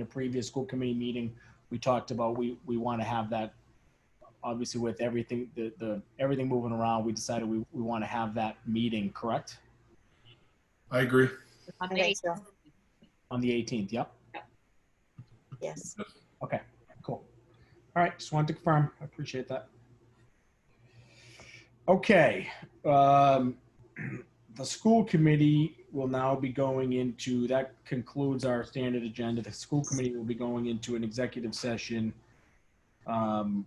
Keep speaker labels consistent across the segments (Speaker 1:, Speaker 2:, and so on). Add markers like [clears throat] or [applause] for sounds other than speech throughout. Speaker 1: a previous school committee meeting, we talked about, we, we want to have that, obviously with everything, the, the, everything moving around, we decided we, we want to have that meeting, correct?
Speaker 2: I agree.
Speaker 3: On
Speaker 4: I
Speaker 3: the
Speaker 4: think so.
Speaker 3: 18th.
Speaker 1: On the 18th, yep,
Speaker 4: Yes.
Speaker 1: cool. All right, just wanted to confirm, I appreciate that. Okay, um, [clears throat] the school committee will now be going into, that concludes our standard agenda. The school committee will be going into an executive session. Um,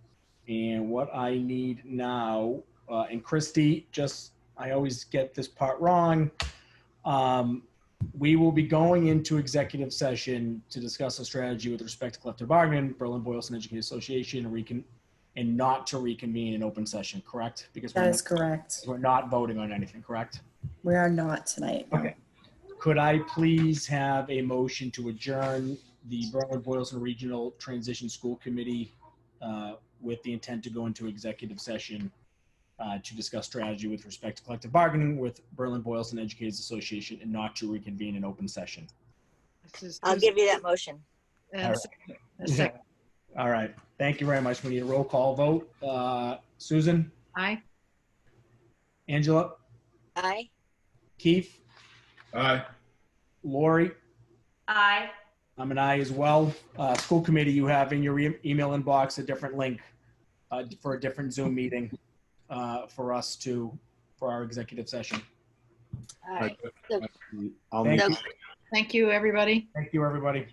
Speaker 1: and what I need now, uh, and Christy, just, I always get this part wrong. Um, we will be going into executive session to discuss a strategy with respect to collective bargaining, Berlin Boylston Educated Association, and recon, and not to reconvene in open session, correct? Because
Speaker 5: That
Speaker 1: we're,
Speaker 5: is correct.
Speaker 1: we're not voting on anything, correct?
Speaker 5: We are not tonight. no.
Speaker 1: Okay. Could I please have a motion to adjourn the Berlin Boylston Regional Transition School Committee uh, with the intent to go into executive session uh, to discuss strategy with respect to collective bargaining with Berlin Boylston Educators Association and not to reconvene in open session?
Speaker 3: This is-
Speaker 4: I'll give you that motion.
Speaker 3: and
Speaker 1: All
Speaker 3: second- a second.
Speaker 1: All right. Thank you very much. We need a roll call vote. Uh, Susan,
Speaker 3: Aye.
Speaker 1: Angela,
Speaker 4: Aye.
Speaker 1: Keith,
Speaker 2: Aye.
Speaker 1: Lori,
Speaker 6: Aye.
Speaker 1: I'm an Um, I as well. Uh, school committee, you have in your e- email inbox a different link uh, for a different Zoom meeting uh, for us to, for our executive session.
Speaker 4: All right.
Speaker 2: I'll
Speaker 1: Thank
Speaker 4: So
Speaker 1: you.
Speaker 3: Thank you, everybody.
Speaker 1: Thank you, everybody.